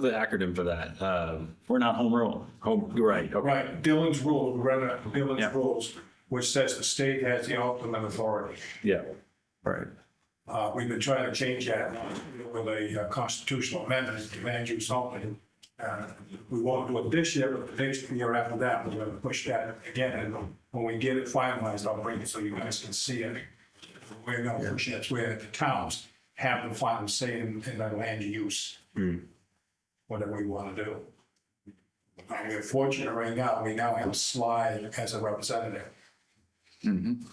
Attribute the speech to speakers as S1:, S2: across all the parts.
S1: the acronym for that? Um, we're not home rule. Home, you're right. Okay.
S2: Right, Dillon's rule, we read it, Dillon's
S1: Yeah.
S2: rules, which says the state has the ultimate authority.
S1: Yeah. Right.
S2: Uh, we've been trying to change that with a uh, constitutional amendment to land use only. Uh, we won't do it this year, but the next year after that, we're gonna push that again, and when we get it finalized, I'll bring it so you guys can see it. We're gonna push it, where the towns have the final say in, in their land use.
S1: Hmm.
S2: Whatever we wanna do. And we're fortunate right now, we now have Sly as a representative.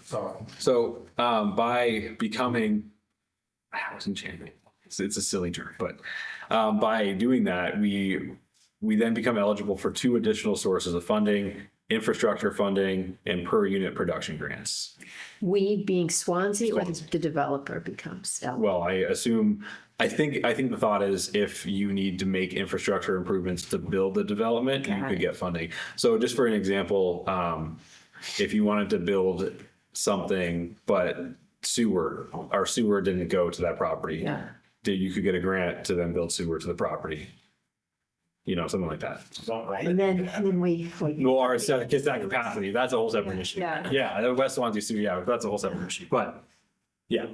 S2: So,
S1: So um, by becoming housing champion, it's, it's a silly term, but um, by doing that, we we then become eligible for two additional sources of funding: infrastructure funding and per unit production grants.
S3: We being Swansea or the developer becomes eligible?
S1: Well, I assume, I think, I think the thought is if you need to make infrastructure improvements to build the development, you
S3: Got
S1: could
S3: it.
S1: get funding. So just for an example, um, if you wanted to build something, but sewer, our sewer didn't go to that property.
S3: Yeah.
S1: That you could get a grant to then build sewer to the property. You know, something like that.
S3: And then, and then we,
S1: Well, or it's not it's not capacity, that's a whole separate issue.
S3: Yeah.
S1: Yeah, the West Swansea sewer, yeah, that's a whole separate issue, but, yeah.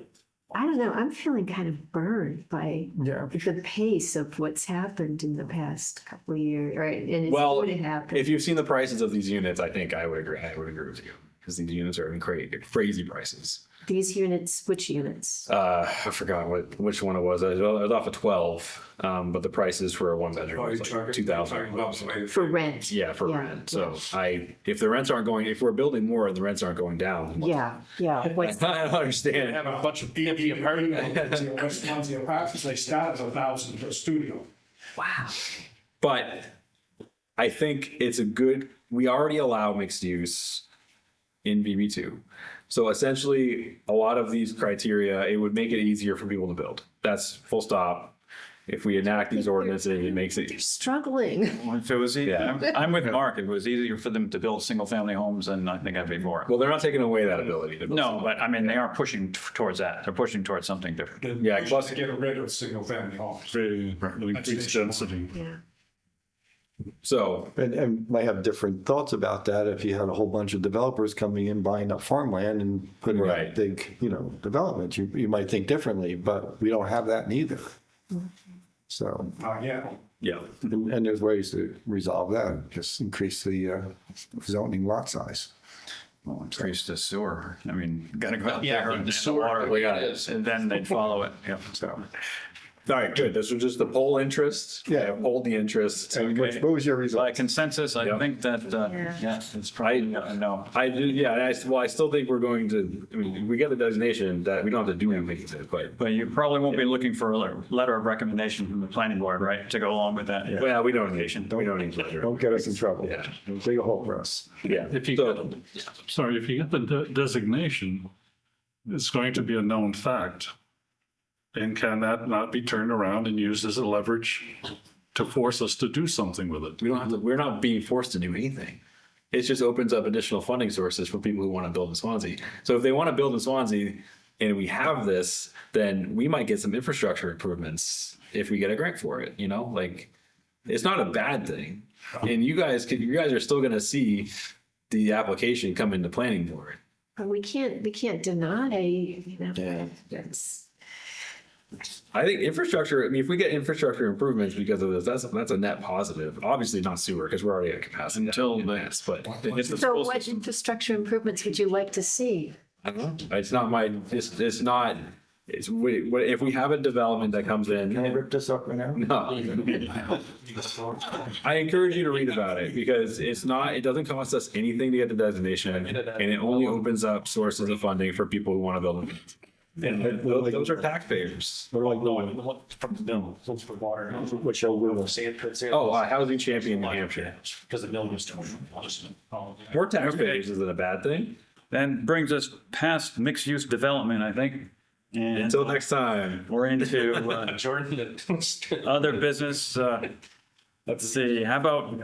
S3: I don't know, I'm feeling kind of burned by
S4: Yeah.
S3: the pace of what's happened in the past couple of years, right? And it's
S1: Well,
S3: going to happen.
S1: if you've seen the prices of these units, I think I would agree. I would agree with you because these units are in crazy, crazy prices.
S3: These units, which units?
S1: Uh, I forgot what which one it was. I was, I was off of twelve, um, but the prices for a one bedroom
S2: Oh,
S1: was
S2: you're
S1: like
S2: talking-
S1: two
S2: you're
S1: thousand.
S2: talking about the way-
S3: For rent?
S1: Yeah, for
S3: Yeah,
S1: rent. So I, if the rents aren't going, if we're building more and the rents aren't going down, what-
S3: Yeah, yeah. What's-
S1: I don't understand.
S2: have a bunch of empty apartments. West Swansea apartments, they start at a thousand per studio.
S3: Wow.
S1: But I think it's a good. We already allow mixed use in VB2. So essentially, a lot of these criteria, it would make it easier for people to build. That's full stop. If we enact these ordinances, it makes
S3: They're
S1: it.
S3: struggling.
S5: Well, If it was, ea-
S1: Yeah.
S5: I'm I'm with Mark, if it was easier for them to build single-family homes, then I think I'd be more.
S1: Well, they're not taking away that ability to build.
S5: No, but I mean, they are pushing t- towards that. They're pushing towards something different.
S1: Yeah,
S2: Push
S1: plus-
S2: to Get rid of single family homes.
S6: increase density.
S3: Yeah.
S1: So
S4: And, and might have different thoughts about that if you had a whole bunch of developers coming in buying up farmland and putting
S1: Right.
S4: up big, you know, developments. You, you might think differently, but we don't have that neither. So,
S2: Uh, yeah,
S1: yeah,
S4: and, and there's ways to resolve that, just increase the uh, zoning lot size.
S5: Well, Increase the sewer. I mean, gotta go out
S6: Yeah,
S5: there and
S6: the
S5: the
S6: sewer,
S5: water,
S6: we gotta-
S5: and then they'd follow it. Yep, so.
S1: all right, good. This was just the poll interest.
S4: Yeah.
S1: polled the interest.
S4: What what was your result?
S5: By consensus, I
S1: Yep.
S5: think that, uh,
S3: Yeah.
S5: yeah, it's probably,
S1: I-
S5: a no.
S1: I do, yeah. and I, s- well, I still think we're going to. I mean, we get the designation that we don't have to do anything with it, but
S5: But you probably won't be looking for a le- letter of recommendation from the planning board, right, to go along with that?
S1: Well, we don't need, we don't need leisure.
S4: Don't get us in trouble.
S1: Yeah.
S4: Dig a hole for us.
S1: Yeah.
S6: If you
S1: So-
S6: get, sorry, if you get the de- designation, it's going to be a known fact. And can that not be turned around and used as a leverage to force us to do something with it?
S1: We don't have to, we're not being forced to do anything. It just opens up additional funding sources for people who want to build in Swansea. So if they want to build in Swansea and we have this, then we might get some infrastructure improvements if we get a grant for it, you know, like it's not a bad thing. And you guys could, you guys are still going to see the application come into planning board.
S3: But we can't, we can't deny, you know, that's,
S1: I think infrastructure, I mean, if we get infrastructure improvements because of this, that's, that's a net positive. Obviously not sewer because we're already at capacity.
S5: Until
S1: in
S5: the-
S1: this, But it's the
S3: so what infrastructure improvements would you like to see?
S1: I don't know. It's not my, it's, it's not, it's, we, what- if we have a development that comes in.
S4: Can I rip this up right now?
S1: No. I encourage you to read about it because it's not, it doesn't cost us anything to get the designation and it only opens up sources of funding for people who want to build. And those those are taxpayers.
S4: We're like, no,
S7: From the mill, it's for water,
S4: what shall we?
S7: sand pits here.
S1: Oh, uh, Housing Champion New Hampshire.
S7: Because the mill was doing.
S1: More taxpayers isn't a bad thing.
S5: Then brings us past mixed-use development, I think. And
S1: Until next time.
S5: we're into, uh,
S7: Jordan.
S5: other business, uh, let's see, how about,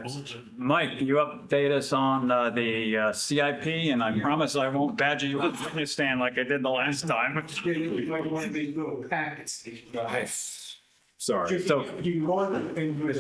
S5: Mike, you update us on uh, the uh, CIP, and I promise I won't badger you up to witness stand like I did the last time.
S2: you might want these little packets.
S1: Sorry.
S2: You can go in- into his